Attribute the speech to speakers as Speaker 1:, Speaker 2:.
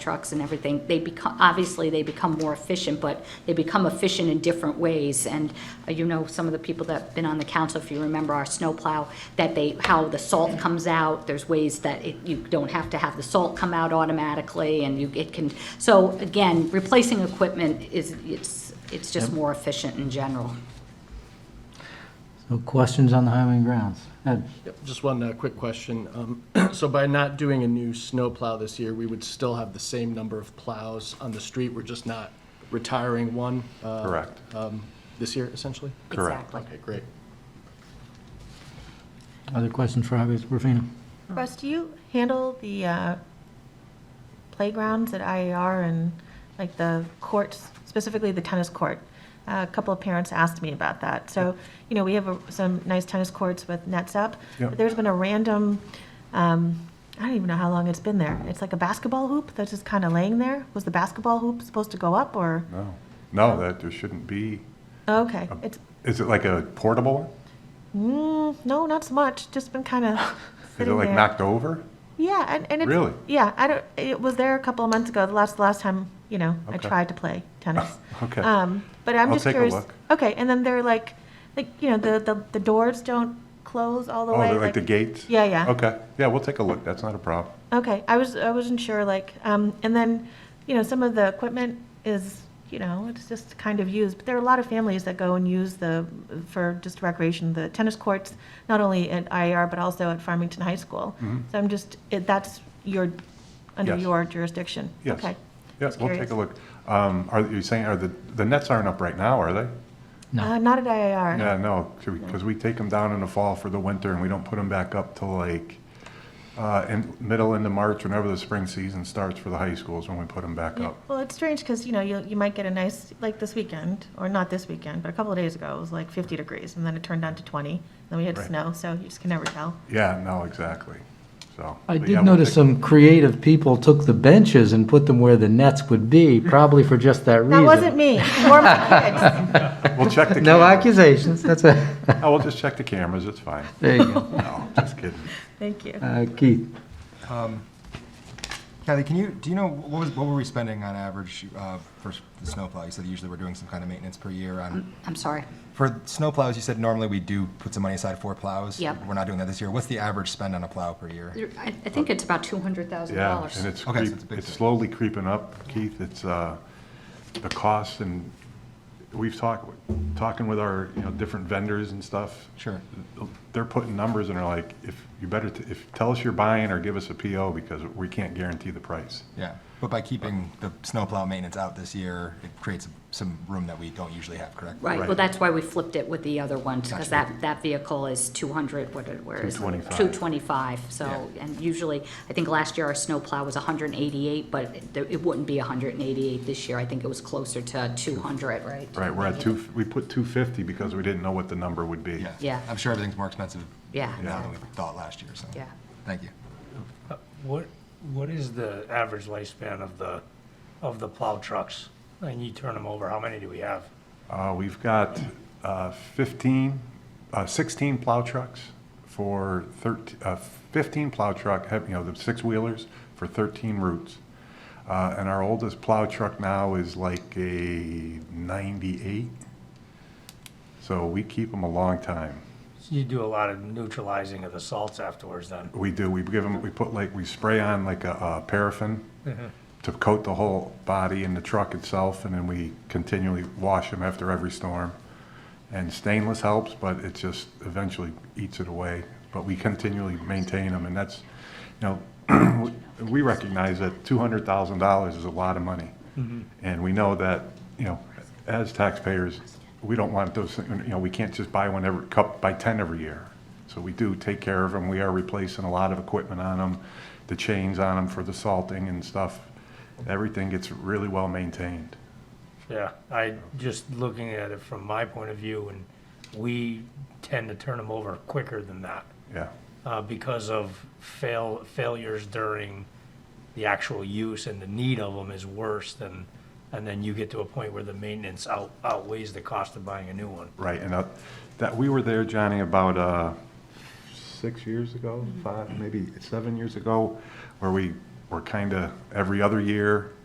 Speaker 1: trucks and everything, they become, obviously, they become more efficient, but they become efficient in different ways. And uh, you know, some of the people that have been on the council, if you remember our snowplow, that they, how the salt comes out, there's ways that it, you don't have to have the salt come out automatically, and you, it can, so again, replacing equipment is, it's, it's just more efficient in general.
Speaker 2: So questions on the highway and grounds? Ed?
Speaker 3: Yep, Just one uh, quick question. Um, So by not doing a new snow plow this year, we would still have the same number of plows on the street? We're just not retiring one? uh,
Speaker 4: Correct.
Speaker 3: um, This year, essentially?
Speaker 4: Correct.
Speaker 1: Exactly.
Speaker 3: Okay, great.
Speaker 2: Other questions for Highways, Rufino?
Speaker 4: Mm.
Speaker 5: Russ, do you handle the uh, playgrounds at IAR and like the courts, specifically the tennis court? A couple of parents asked me about that. So, you know, we have a- some nice tennis courts with nets up.
Speaker 4: Yep.
Speaker 5: But there's been a random, um, I don't even know how long it's been there. It's like a basketball hoop that's just kind of laying there. Was the basketball hoop supposed to go up or?
Speaker 4: No, Um. no, that there shouldn't be.
Speaker 5: Okay, it's,
Speaker 4: Is it like a portable? one?
Speaker 5: mm, no, not so much, just been kind of
Speaker 4: Is it
Speaker 5: sitting there.
Speaker 4: like knocked over?
Speaker 5: Yeah, and, and it's,
Speaker 4: Really?
Speaker 5: yeah, I don't, it was there a couple of months ago, the last, last time, you know, I
Speaker 4: Okay.
Speaker 5: tried to play tennis.
Speaker 4: Okay.
Speaker 5: Um, but I'm
Speaker 4: I'll
Speaker 5: just
Speaker 4: take a
Speaker 5: curious.
Speaker 4: look.
Speaker 5: Okay, and then they're like, like, you know, the, the, the doors don't close all the
Speaker 4: Oh,
Speaker 5: way.
Speaker 4: they're like the gates?
Speaker 5: Yeah, yeah.
Speaker 4: Okay, yeah, we'll take a look, that's not a problem.
Speaker 5: Okay, I was, I wasn't sure, like, um, and then, you know, some of the equipment is, you know, it's just kind of used, but there are a lot of families that go and use the, for just recreation, the tennis courts, not only at IAR, but also at Farmington High School. So I'm just, it, that's your, under
Speaker 4: Mm-hmm. Yes.
Speaker 5: your jurisdiction?
Speaker 4: Yes.
Speaker 5: Okay.
Speaker 4: Yes,
Speaker 5: Just
Speaker 4: we'll
Speaker 5: curious.
Speaker 4: take a look. Um, Are you saying, are the, the nets aren't up right now, are they?
Speaker 5: Uh, not at IAR.
Speaker 4: Yeah, no, because we take them down in the fall for the winter, and we don't put them back up till like, uh, in, middle into March, whenever the spring season starts for the high schools, when we put them back
Speaker 5: Yeah,
Speaker 4: up.
Speaker 5: Well, it's strange because, you know, you, you might get a nice, like this weekend, or not this weekend, but a couple of days ago, it was like 50 degrees, and then it turned down to 20, then we had
Speaker 4: Right.
Speaker 5: snow, so you just can never tell.
Speaker 4: Yeah, no, exactly, so.
Speaker 2: I
Speaker 4: but yeah,
Speaker 2: did
Speaker 4: we'll
Speaker 2: notice
Speaker 4: take-
Speaker 2: some creative people took the benches and put them where the nets would be, probably for just that reason.
Speaker 5: That wasn't me. Or my kids.
Speaker 4: We'll check the.
Speaker 2: No
Speaker 4: cameras.
Speaker 2: accusations, that's a,
Speaker 4: Oh, we'll just check the cameras, it's fine.
Speaker 2: there you go.
Speaker 4: No, just kidding.
Speaker 5: Thank you.
Speaker 2: Uh, Keith?
Speaker 6: Kathy, can you, do you know, what was, what were we spending on average uh, for the snowplow? You said usually we're doing some kind of maintenance per year on,
Speaker 1: I'm sorry.
Speaker 6: for snowplows, you said normally we do put some money aside for plows.
Speaker 1: Yep.
Speaker 6: We're not doing that this year. What's the average spend on a plow per year?
Speaker 1: I, I think it's about $200,000.
Speaker 4: Yeah, and it's
Speaker 6: Okay, so
Speaker 4: creep,
Speaker 6: it's a big
Speaker 4: it's
Speaker 6: thing.
Speaker 4: slowly creeping up, Keith, it's, uh, the cost and we've talked, talking with our, you know, different vendors and stuff.
Speaker 6: Sure.
Speaker 4: They're putting numbers and are like, if, you better, t- if, tell us you're buying or give us a PO because we can't guarantee the price.
Speaker 6: Yeah, but by keeping the snowplow maintenance out this year, it creates some room that we don't usually have, correct?
Speaker 1: Right, well,
Speaker 4: Right.
Speaker 1: that's why we flipped it with the other ones, because
Speaker 6: Gotcha.
Speaker 1: that, that vehicle is 200, what, it- where is it?
Speaker 4: 225.
Speaker 1: 225, so, and usually, I think last year our snowplow was 188, but it- it wouldn't be 188 this year, I think it was closer to 200, right?
Speaker 4: Right, we're at two, we put two fifty because we didn't know what the number would be.
Speaker 6: Yeah.
Speaker 1: Yeah.
Speaker 6: I'm sure everything's more expensive
Speaker 1: Yeah,
Speaker 6: now than we
Speaker 1: exactly.
Speaker 6: thought last year, so.
Speaker 1: Yeah.
Speaker 6: Thank you.
Speaker 7: What, what is the average lifespan of the, of the plow trucks? And you turn them over, how many do we have?
Speaker 4: Uh, we've got, uh, fifteen, uh, sixteen plow trucks for thirteen, uh, fifteen plow truck, have- you know, the six-wheelers for thirteen routes. Uh, and our oldest plow truck now is like a ninety-eight. So we keep them a long time.
Speaker 7: So You do a lot of neutralizing of the salts afterwards then.
Speaker 4: We do, we give them, we put like, we spray on like a, uh paraffin to coat the whole body and the truck itself, and then we continually wash them after every storm. And stainless helps, but it just eventually eats it away. But we continually maintain them, and that's, you know, we recognize that two hundred thousand dollars is a lot of money. And we know that, you know, as taxpayers, we don't want those, thing- you know, we can't just buy one every, cup, buy ten every year. So we do take care of them. We are replacing a lot of equipment on them, the chains on them for the salting and stuff. Everything gets really well maintained.
Speaker 7: Yeah, I, just looking at it from my point of view, and we tend to turn them over quicker than that
Speaker 4: Yeah,
Speaker 7: uh, because of fail, failures during the actual use and the need of them is worse than, and then you get to a point where the maintenance out outweighs the cost of buying a new one.
Speaker 4: right. And uh, that, we were there, Johnny, about uh, six years ago, five, maybe seven years ago, where we we're kind of every other year,